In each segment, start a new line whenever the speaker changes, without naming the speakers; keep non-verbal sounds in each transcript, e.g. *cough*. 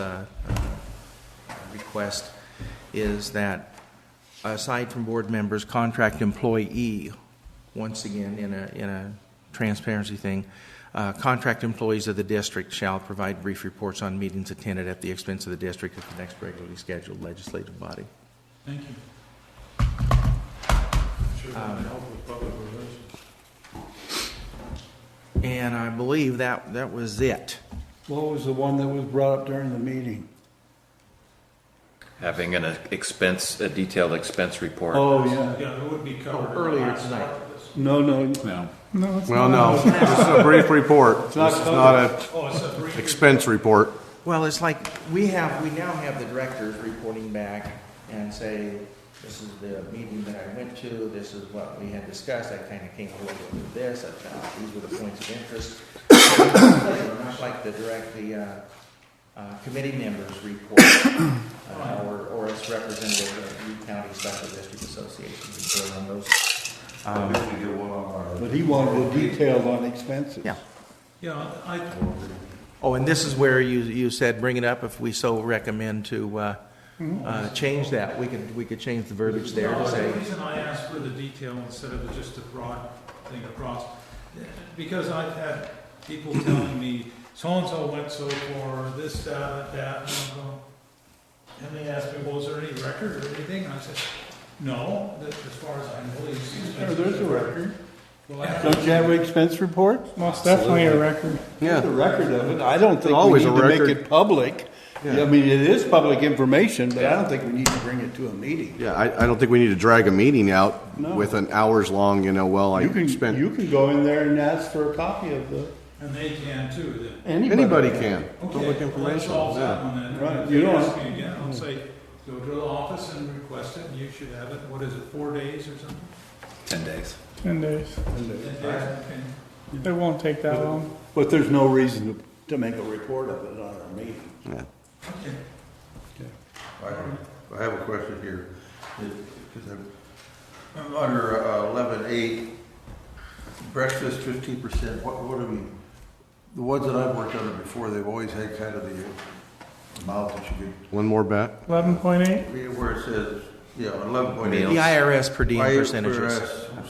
uh, request is that, aside from board members, contract employee, once again, in a, in a transparency thing, uh, contract employees of the district shall provide brief reports on meetings attended at the expense of the district at the next regularly scheduled legislative body.
Thank you. Should
have been
helpful with public relations.
And I believe that, that was it.
What was the one that was brought up during the meeting?
having an expense, a detailed expense report.
Oh, yeah.
Yeah, it would be covered.
Oh, earlier tonight.
No, no,
No.
Well, no, this is a brief report. It's
not
not an
Oh, it's a brief.
expense report.
Well, it's like, we have, we now have the directors reporting back and say, this is the meeting that I went to, this is what we had discussed, I kind of came away with this, I found these were the points of interest. *coughs* Not like the direct, the, uh, uh, committee members report, uh, or, or as representative of the Ute County Special District Association, report on those. Um,
but he wanted the details on expenses.
Yeah.
Yeah, I,
Oh, and this is where you, you said, bring it up if we so recommend to, uh, uh, change that. We could, we could change the verbiage there to
no,
say.
the reason I asked for the detail instead of just a broad thing across, because I've had people telling me, so-and-so went so far, this, that, that, and I'm going, and they asked me, well, is there any record or anything? And I said, no, that- as far as I know, these
There-
expenses.
There's a record.
Well, I-
Don't you have an expense report?
Most definitely a record.
There's a record of it. I don't think we
Always
need
a
to make
record.
it public. I mean, it is public information, but I don't think we need to bring it to a meeting.
Yeah, I, I don't think we need to drag a meeting out
No.
with an hours long, you know, well, I
You can, you
spent.
can go in there and ask for a copy of the,
And they can too, then.
anybody.
Anybody can. Public
Okay, well, let's
information,
solve that
yeah.
one then.
Right,
If
you
they
don't- Hmm.
ask me again, I'll say, go to the office and request it, and you should have it, what is it, four days or something?
Ten days.
Ten days.
Ten days, okay.
It won't take that long.
But there's no reason to, to make a report of it on a meeting.
Yeah.
Okay.
I I have a question here, because I'm, I'm under uh, eleven eight, breakfast fifteen percent, what, what do we, the ones that I've worked under before, they've always had kind of the amount that you
One more bet.
Eleven point eight.
could, where it says, yeah, eleven point
The
eight.
IRS per diem percentages.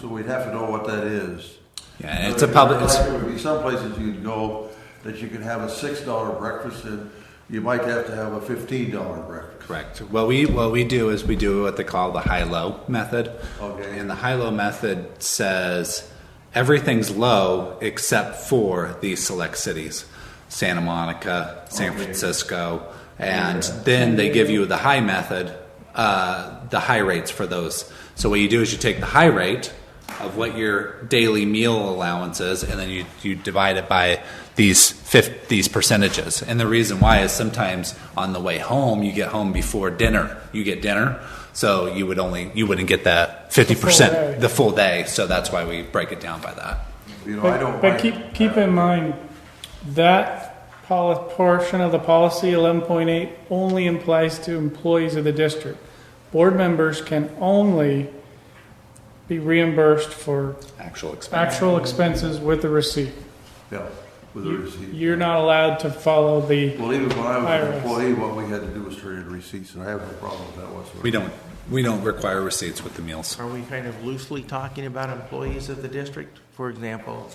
So we'd have to know what that is.
Yeah, it's a public, it's,
There would be some places you'd go that you could have a six dollar breakfast, and you might have to have a fifteen dollar breakfast.
correct. What we, what we do is we do what they call the high-low method.
Okay.
And the high-low method says everything's low except for these select cities, Santa Monica, San Francisco. And then they give you the high method, uh, the high rates for those. So what you do is you take the high rate, of what your daily meal allowance is, and then you, you divide it by these fif- these percentages. And the reason why is sometimes on the way home you get home before dinner. You get dinner, so you would only you wouldn't get that fifty
day.
percent the full day. So that's why we break it down by that.
You know, I
But,
don't
but
mind-
keep, keep in mind, that poli- portion of the policy, eleven point eight, only applies to employees of the district. Board members can only be reimbursed for
Actual expense.
actual expenses with a receipt.
Yeah, with a
You-
receipt.
You're not allowed to follow the,
Well, even when I was an
IRS.
employee, what we had to do was turn in receipts, and I have no problem with that whatsoever.
We don't we don't require receipts with the meals.
Are we kind of loosely talking about employees of the district? For example,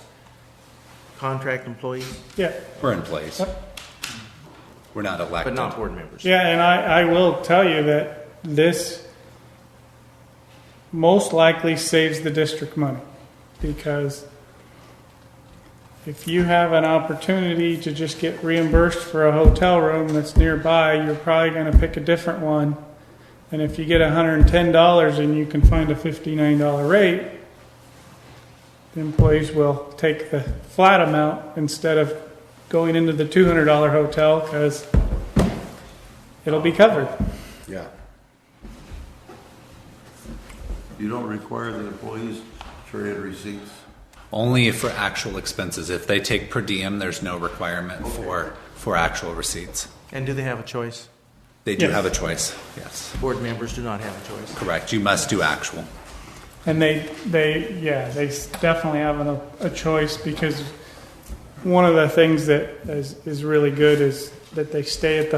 contract employees,
yeah.
We're in place. We're not
but
elected.
not board members.
Yeah, and I, I will tell you that this most likely saves the district money because if you have an opportunity to just get reimbursed for a hotel room that's nearby, you're probably going to pick a different one. And if you get $110 and you can find a $59 rate, the employees will take the flat amount instead of going into the $200 hotel because it'll be covered.
Yeah.
You don't require the employees to turn in receipts.
Only for actual expenses. If they take per diem, there's no requirement for for actual receipts.
And do they have a choice?
They do
Yes.
have a choice. Yes.
Board members do not have a choice.
Correct. You must do actual.
And they, they, yeah, they s- definitely have a, a choice because one of the things that is, is really good is that they stay at the